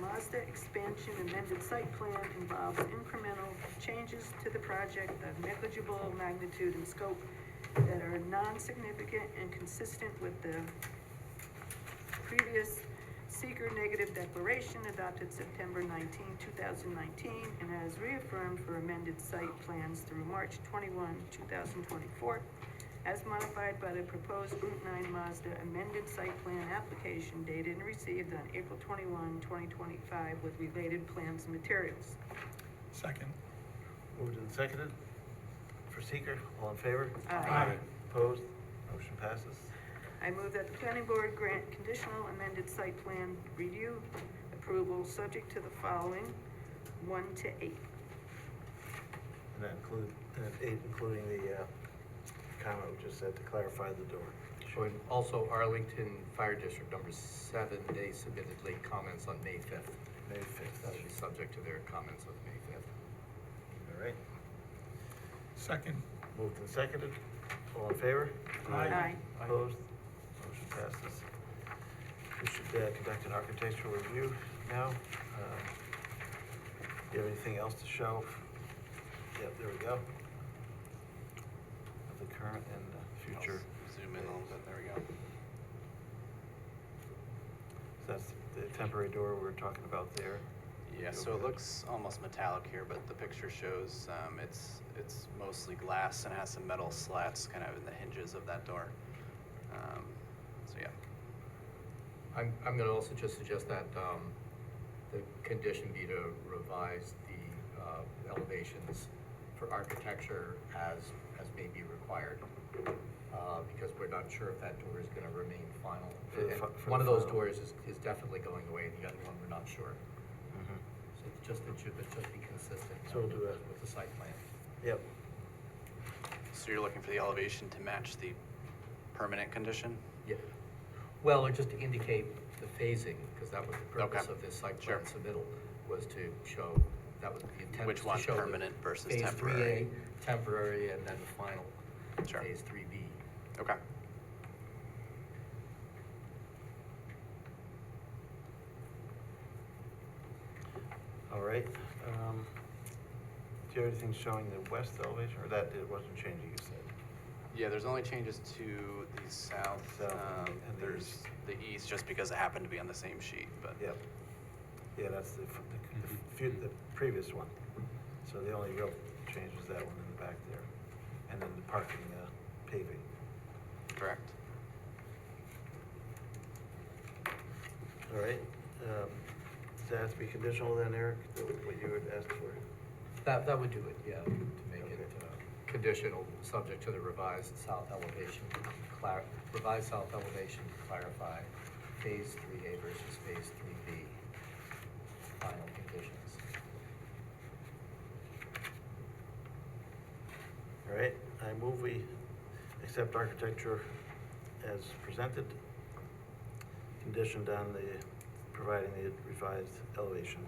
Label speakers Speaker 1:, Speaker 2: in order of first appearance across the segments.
Speaker 1: Mazda expansion amended site plan involves incremental changes to the project of negligible magnitude and scope that are non-significant and consistent with the previous seeker negative declaration adopted September 19, 2019, and as reaffirmed for amended site plans through March 21, 2024, as modified by the proposed Route 9 Mazda amended site plan application dated and received on April 21, 2025, with related plans and materials.
Speaker 2: Second.
Speaker 3: Moved and seconded for seeker, all in favor?
Speaker 1: Aye. Aye.
Speaker 3: Opposed? Motion passes.
Speaker 1: I move that the planning board grant conditional amended site plan review approval subject to the following, one to eight.
Speaker 3: And that include, and eight, including the, uh, comment we just said to clarify the door.
Speaker 4: Showing also Arlington Fire District number seven, they submitted late comments on May fifth.
Speaker 3: May fifth.
Speaker 4: That'll be subject to their comments on May fifth.
Speaker 3: All right,
Speaker 2: Second.
Speaker 3: moved and seconded, all in favor?
Speaker 2: Aye.
Speaker 1: Aye.
Speaker 3: Opposed? Motion passes. We should, uh, conduct an architectural review now. Um, Do you have anything else to show? Yep, there we go. Of the current and the future.
Speaker 5: Zoom in a little bit, there we go.
Speaker 3: So That's the temporary door we were talking about there.
Speaker 5: Yeah, so it looks almost metallic here, but the picture shows, um, it's, it's mostly glass and has some metal slats kind of in the hinges of that door. Um, so yeah,
Speaker 4: I'm, I'm gonna also just suggest that, um, the condition be to revise the, uh, elevations for architecture as, as may be required. Uh, because we're not sure if that door is gonna remain final.
Speaker 3: For the
Speaker 4: And
Speaker 3: fi- for
Speaker 4: One of
Speaker 3: the
Speaker 4: those
Speaker 3: final.
Speaker 4: doors is, is definitely going away, and the other one, we're not sure.
Speaker 3: Mhm.
Speaker 4: So it's just, it should, it should be consistent.
Speaker 3: So we'll do that.
Speaker 4: With the site plan.
Speaker 3: Yep,
Speaker 5: so you're looking for the elevation to match the permanent condition?
Speaker 4: Yeah, well, or just to indicate the phasing, because that was the purpose
Speaker 5: Okay.
Speaker 4: of this site plan
Speaker 5: Sure.
Speaker 4: submittal, was to show, that was the intent.
Speaker 5: Which
Speaker 4: was to
Speaker 5: one's
Speaker 4: show the
Speaker 5: permanent versus
Speaker 4: phase three A,
Speaker 5: temporary?
Speaker 4: Temporary, and then the final.
Speaker 5: Sure.
Speaker 4: Phase three B.
Speaker 5: Okay,
Speaker 3: all right. Um, Do you have anything showing the west elevation, or that it wasn't changing, you said?
Speaker 5: yeah, there's only changes to the south,
Speaker 3: South
Speaker 5: um,
Speaker 3: and the
Speaker 5: there's
Speaker 3: east.
Speaker 5: the east, just because it happened to be on the same sheet, but.
Speaker 3: Yep. Yeah, that's the, f- the, the few- the previous one. So the only real change was that one in the back there. And then the parking, uh, paving.
Speaker 5: Correct.
Speaker 3: All right. um, Does that have to be conditional then, Eric, the- what you would ask for?
Speaker 4: That, that would do it, yeah, to make it
Speaker 3: Okay.
Speaker 4: uh, conditional, subject to the revised south elevation, clar, revised south elevation to clarify phase three A versus phase three B. Final conditions.
Speaker 3: All right, I move we accept architecture as presented, conditioned on the, providing the revised elevation.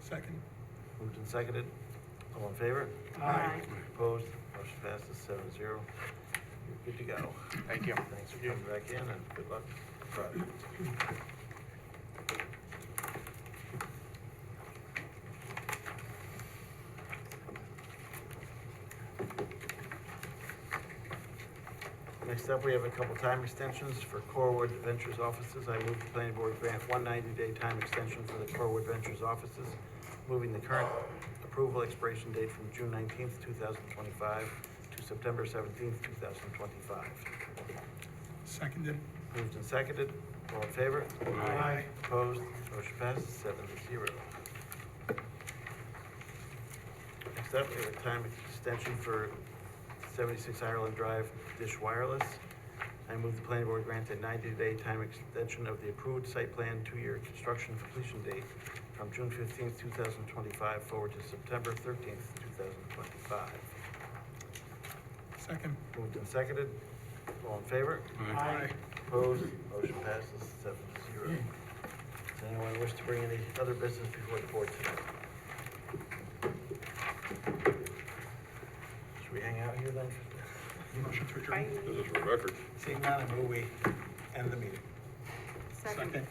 Speaker 2: Second.
Speaker 3: Moved and seconded, all in favor?
Speaker 1: Aye.
Speaker 3: Opposed, motion passes seven zero. You're good to go.
Speaker 5: Thank you.
Speaker 3: Thanks for coming back in and good luck. Right. Next up, we have a couple time extensions for Corwood Ventures offices. I move the planning board grant one ninety-day time extension for the Corwood Ventures offices, moving the current approval expiration date from June nineteenth, two thousand twenty-five to September seventeenth, two thousand twenty-five.
Speaker 2: Seconded.
Speaker 3: Moved and seconded. All in favor?
Speaker 2: Aye.
Speaker 3: Opposed? Motion passes seven to zero. Next up, we have a time extension for seventy-six Ireland Drive Dish Wireless. I move the planning board grant a ninety-day time extension of the approved site plan two-year construction completion date from June fifteenth, two thousand twenty-five forward to September thirteenth, two thousand twenty-five.
Speaker 2: Second.
Speaker 3: Moved and seconded. All in favor?
Speaker 2: Aye.
Speaker 3: Opposed, motion passes seven to zero. Does anyone wish to bring any other business before the board tonight? Should we hang out here then?
Speaker 2: Motion to
Speaker 1: Bye.
Speaker 2: adjourn.
Speaker 6: This is for record.
Speaker 3: Seeing none, I move we end the meeting.
Speaker 1: Second.